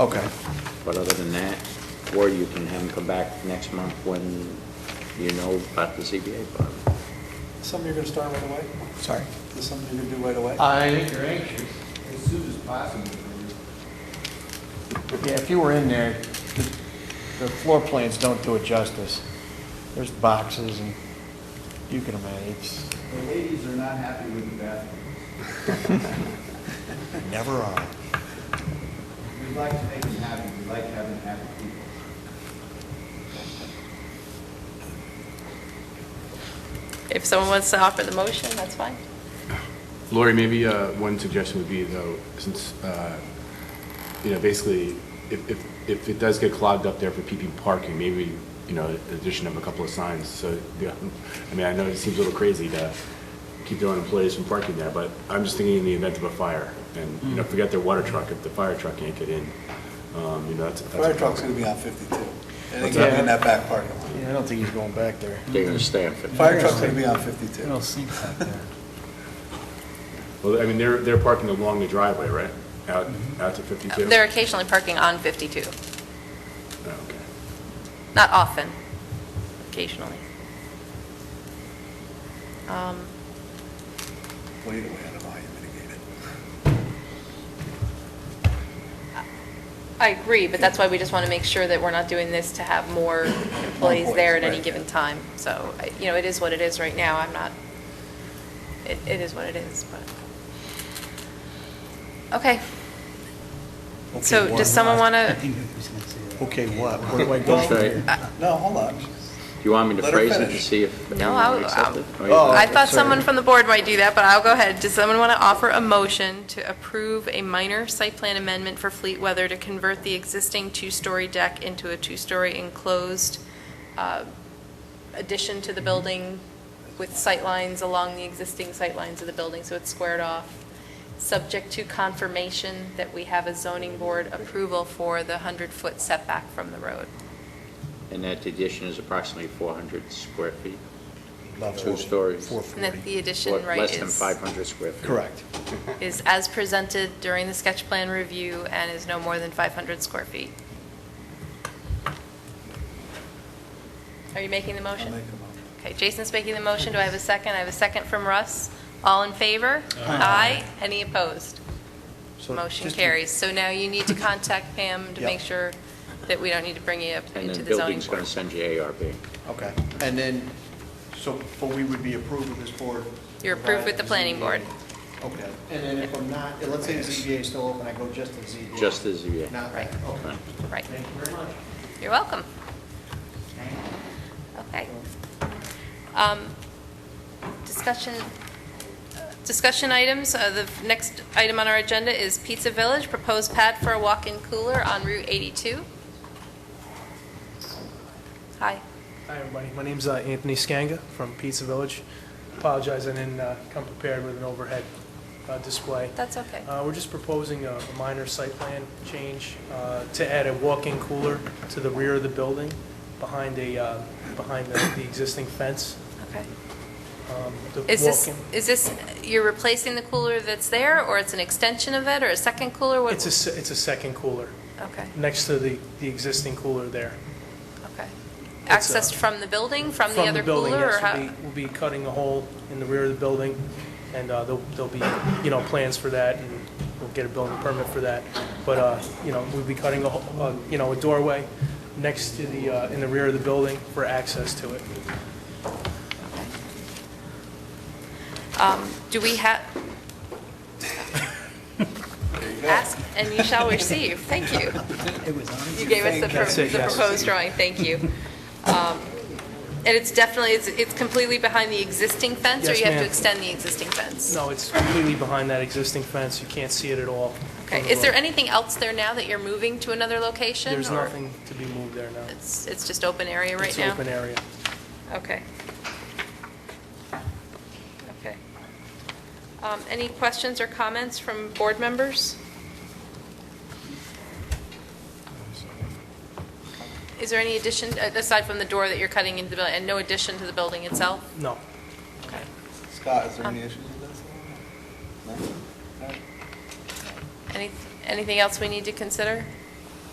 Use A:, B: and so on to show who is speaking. A: Okay,
B: But other than that, or you can have them come back next month when you know about the CBA fund.
C: Something you're going to start right away?
A: sorry.
C: Is this something you're going to do right away?
D: I think you're anxious.
E: As soon as possible.
D: Yeah, if you were in there, the the floor plans don't do it justice. There's boxes and you can imagine, it's
E: The ladies are not happy with the bathroom.
D: never on.
E: We'd like to make them happy, we like having happy people.
F: If someone wants to offer the motion, that's fine.
G: Lori, maybe uh, one suggestion would be though, since, uh, you know, basically, if, if, if it does get clogged up there for PP parking, maybe, you know, the addition of a couple of signs, so, yeah, I mean, I know it seems a little crazy to keep their own employees from parking there, but I'm just thinking in the event of a fire, and, you know, forget their water truck, if the fire truck can't get in, um, you know, that's. that's a
C: Fire truck's going
G: problem.
C: to be on 52. And it's going to be in that back parking lot.
D: Yeah, I don't think he's going back there.
B: They're gonna stay on fifty.
C: Fire truck's going to be on
D: I
C: 52.
D: don't think back there.
G: Well, I mean, they're, they're parking along the driveway, right? Out,
C: Mm-hmm.
G: out to 52?
F: They're occasionally parking on 52,
G: Oh, Okay.
F: not often, occasionally. Um,
C: Well, either way, I don't know how you mitigate it.
F: I agree, but that's why we just want to make sure that we're not doing this to have more employees there at
C: Employees,
F: any
C: right.
F: given time. So, I- you know, it is what it is right now. I'm not, it, it is what it is, but. Okay.
D: Okay,
F: So
D: what?
F: does someone want to?
D: Okay, what? Where do I go from
B: Okay.
D: here?
C: No, hold on.
B: Do you want me to
C: Let her
B: phrase it to
C: finish.
B: see if
F: No,
B: anyone
F: I'll-
B: accepts it?
F: I'll-
B: Oh,
F: I
B: yeah.
D: sorry.
F: thought someone from the board might do that, but I'll go ahead. Does someone want to offer a motion to approve a minor site plan amendment for Fleet Weather to convert the existing two-story deck into a two-story enclosed uh, addition to the building with sightlines along the existing sightlines of the building, so it's squared off, subject to confirmation that we have a zoning board approval for the 100-foot setback from the road.
B: And that addition is approximately four hundred square feet?
D: About
B: Two
D: four-
B: stories.
F: And that
D: 440.
F: the addition,
B: Or
F: right,
B: Less than
F: is-
B: five hundred square feet?
D: Correct.
F: is as presented during the sketch plan review and is no more than 500 square feet. Are you making the
C: I'll
F: motion?
C: make a motion.
F: Okay, Jason's making the motion. Do I have a second? I have a second from Russ. All in favor? Aye. Any opposed?
D: So
F: Motion
D: just-
F: carries. So now you need to contact Pam to
D: Yep.
F: make sure that we don't need to bring you up
B: And
F: into
B: then
F: the zoning
B: building's
F: board.
B: gonna send you ARB.
D: Okay, and then, so, but we would be approved with this board?
F: You're approved with the planning board.
D: Okay, and then if I'm not, let's say the ZBA is still open, I go just to the ZBA?
B: Just the ZBA.
D: Not
F: Right.
D: that, okay.
F: Right.
D: Thank you very much.
F: You're welcome. Okay. Um, Discussion, discussion items, Uh, the next item on our agenda is Pizza Village, proposed pad for a walk-in cooler on Route 82. Hi.
H: Hi, everybody. My name's uh, Anthony Scanga from Pizza Village. Apologize, I didn't uh, come prepared with an overhead uh, display.
F: That's okay.
H: Uh, We're just proposing a a minor site plan change uh, to add a walk-in cooler to the rear of the building, behind a, uh, behind the the existing fence.
F: Okay.
H: Um, the
F: Is this,
H: walk-in-
F: is this, you're replacing the cooler that's there, or it's an extension of it, or a second cooler? What-
H: It's a, se- it's a second cooler,
F: Okay,
H: next to the, the existing cooler there.
F: okay.
H: It's, uh,
F: Accessed from the building, from the
H: From
F: other
H: building,
F: cooler? or
H: yes,
F: how-
H: we'll be- We'll be cutting a hole in the rear of the building, and uh, there'll there'll be, you know, plans for that, and we'll get a building permit for that. But, uh, you know, we'll be cutting a, ho- uh, you know, a doorway next to the, uh, in the rear of the building for access to it.
F: Um, Do we have? Ask and you shall receive, thank you. You gave us the
H: That's
F: pro-
H: it,
F: the
H: yes.
F: proposed drawing, thank you. Um, And it's definitely, it's- it's completely behind the existing fence? Or
H: Yes,
F: you have to
H: ma'am.
F: extend the existing fence?
H: No, it's completely behind that existing fence, you can't see it at all.
F: Okay, is there anything else there now that you're moving to another location?
H: There's
F: or
H: nothing to be moved there now.
F: It's it's just open area right
H: It's
F: now?
H: open area.
F: Okay. Okay. Um, Any questions or comments from board members? Is there any addition, uh, aside from the door that you're cutting into the building, and no addition to the building itself?
H: No,
F: Okay.
C: Scott, is there any issues with this? No? All right.
F: Any- Anything else we need to consider?